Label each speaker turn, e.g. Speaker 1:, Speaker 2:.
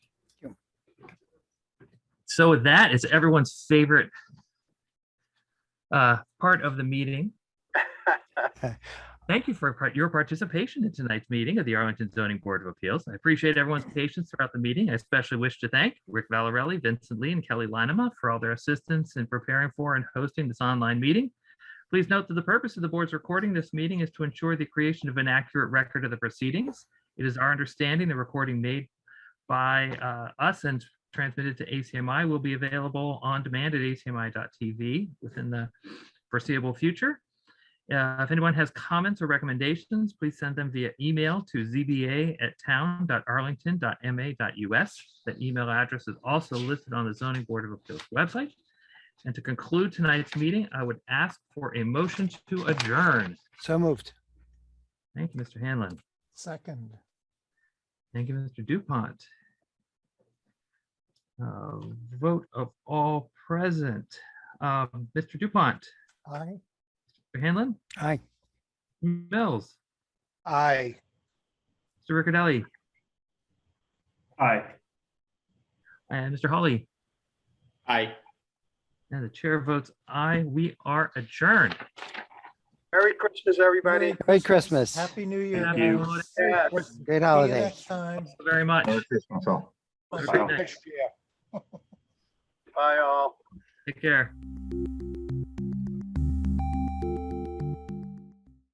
Speaker 1: So with that, it's everyone's favorite uh, part of the meeting. Thank you for par- your participation in tonight's meeting of the Arlington Zoning Board of Appeals. I appreciate everyone's patience throughout the meeting. I especially wish to thank Rick Valarelli, Vincent Lee, and Kelly Linema for all their assistance in preparing for and hosting this online meeting. Please note that the purpose of the board's recording this meeting is to ensure the creation of an accurate record of the proceedings. It is our understanding the recording made by uh, us and transmitted to ACMI will be available on demand at acmi.tv within the foreseeable future. Uh, If anyone has comments or recommendations, please send them via email to zba@town.arlington.ma.us. The email address is also listed on the zoning board of appeals website. And to conclude tonight's meeting, I would ask for a motion to adjourn.
Speaker 2: So moved.
Speaker 1: Thank you, Mr. Hanlon.
Speaker 3: Second.
Speaker 1: Thank you, Mr. DuPont. Uh, Vote of all present. Um, Mr. DuPont,
Speaker 3: Aye.
Speaker 1: Mr. Hanlon,
Speaker 2: Aye.
Speaker 1: Mills,
Speaker 2: Aye.
Speaker 1: Mr. Riccadelli,
Speaker 4: Aye.
Speaker 1: and Mr. Hawley.
Speaker 4: Aye.
Speaker 1: And the chair votes aye. We are adjourned.
Speaker 5: Merry Christmas, everybody.
Speaker 2: Merry Christmas.
Speaker 3: Happy New Year.
Speaker 1: Thank
Speaker 3: guys.
Speaker 1: you.
Speaker 5: Yeah.
Speaker 3: See you
Speaker 2: Great holiday.
Speaker 3: next time.
Speaker 1: Very much.
Speaker 4: Merry Christmas all.
Speaker 1: Have a great night.
Speaker 5: Bye, all.
Speaker 1: Take care.